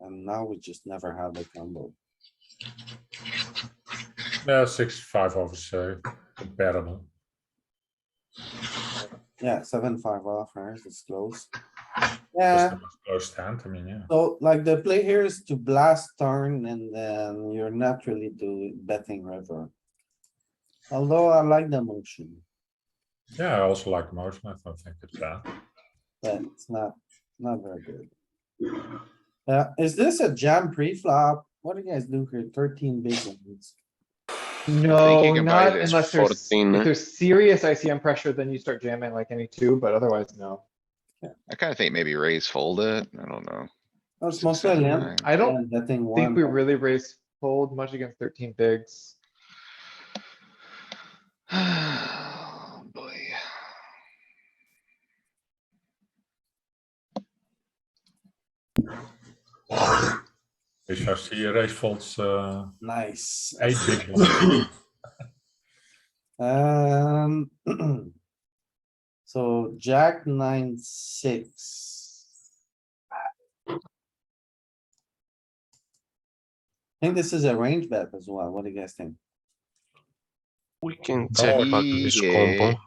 And now we just never have the combo. Yeah, six, five off is uh, comparable. Yeah, seven, five off, right? It's close. That's Yeah, the most close hand, I mean, yeah. so like the play here is to blast turn and then you're not really doing betting river. Although I like the motion, Yeah, I also like motion, I don't think it's bad. but it's not, not very good. Uh, is this a jam pre-flop? What do you guys do here? Thirteen big ones. thinking No, about not it as unless there's, 14, if eh? there's serious ICM pressure, then you start jamming like any two, but otherwise, no. I kinda think maybe raise fold it, I don't know. That's Six, Oh, mostly seven, limp. nine. I don't and Betting think we one. really raise fold much against thirteen bigs. oh, Boy, If I see a raise folds, uh, Nice. eight big ones. Um. So jack nine, six. I think this is a range bet as well. What do you guys think? We can check but this Yeah. combo.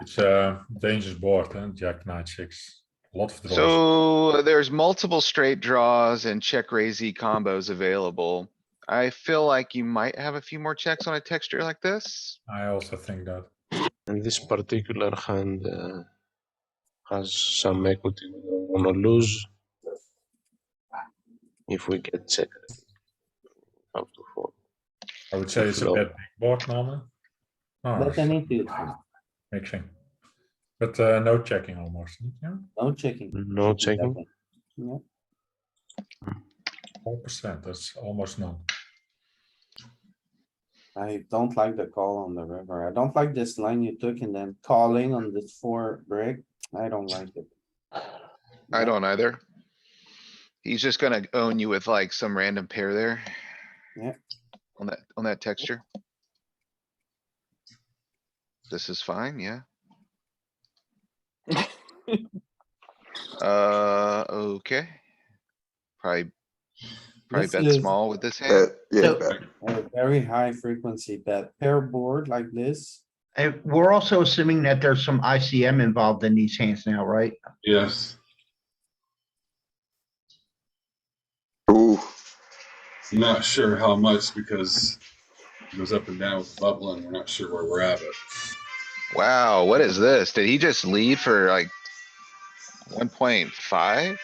It's a dangerous board, and jack nine, six, a lot of draws. so there's multiple straight draws and check raise E combos available. I feel like you might have a few more checks on a texture like this. I also think that. And this particular hand uh, has some equity we don't wanna lose. If we get checked. Up to four. I would say it's a Well- bad big board normally. Oh, Bet it's any two, mixing. But uh, no checking almost, yeah, no checking. No checking, four percent, that's almost none. I don't like the call on the river. I don't like this line you took and then calling on this four brick. I don't like it. I don't either. He's just gonna own you with like some random pair there. Yeah. On that, on that texture. This is fine, yeah. Uh, okay. Probably, probably This bet is- small with this hand. Uh, yeah, So- but A very high frequency bet pair board like this. And we're also assuming that there's some ICM involved in these hands now, right? Yes, ooh, not sure how much because it goes up and down with bubble and we're not sure where we're at, but Wow, what is this? Did he just leave for like one point five?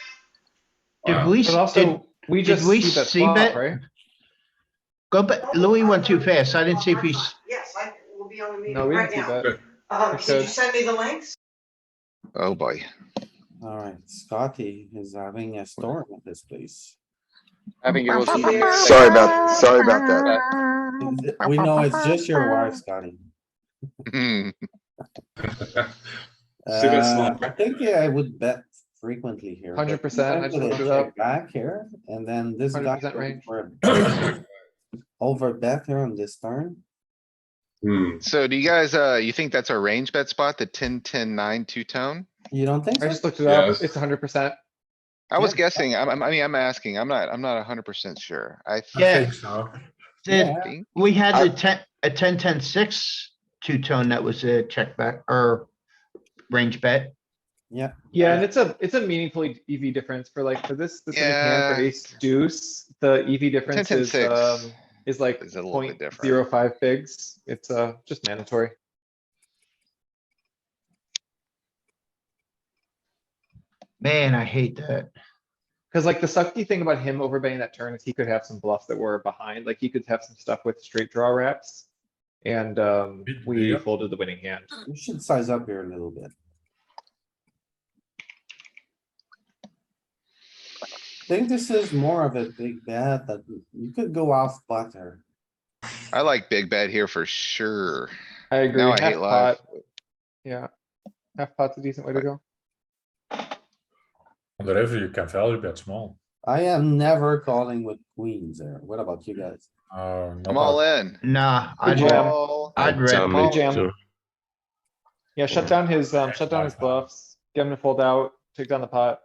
Did Wow. we, But s- did, also, we did just we see that see flop, that? right? go back, Louis went too fast. I didn't see if he, s- Yes, I will be on the No, meeting we right didn't see now. that. Um, Did you because- send me the links? Oh boy, Alright, Scotty is having a storm at this place. Having your little Sorry sorry about, sorry about that. We know it's just your wife, Scotty. Hmm. See, that's Uh, not- I think yeah, I would bet frequently here. but 100%, I just sometimes looked they it up. check Back here, and then this guy. 100% range. Over bet here on this turn. Hmm, so do you guys, uh, you think that's our range bet spot, the ten, ten, nine, two tone? You don't think I so? just looked it up. Yes. It's hundred percent. I was Yeah. guessing, I'm, I'm- I mean, I'm asking, I'm not, I'm not hundred percent sure, I I Yeah. think so. did, Yeah. think. we had I- the ten, a ten, ten, six two-tone that was a check back or range bet. Yeah, and it's a, it's a meaningfully EV difference for like, for this specific hand, for Yeah. ace deuce, the EV 10, difference 10, is, 6 um, is like is a little bit point different. zero five bigs. It's, uh, just mandatory. Man, I hate that. Cause like the sucky thing about him overbetting that turn is he could have some bluffs that were behind, like he could have some stuff with straight draw wraps. And um, Big we deal. folded the winning hand. You should size up here a little bit. Think this is more of a big bet that you could go off butter. I like big bet here for sure. I agree. Now I half hate live. pot- Yeah. Half pot's a decent way to go. On the river, you can value bet small. I am never calling with queens there. What about you guys? Oh, I'm all in. Nah, Good I'd, jam. ra- All- I'd jam rather, Paul. it Jam. too. Yeah, shut down his, um, shut down his Five, five. bluffs, get him to fold out, take down the pot.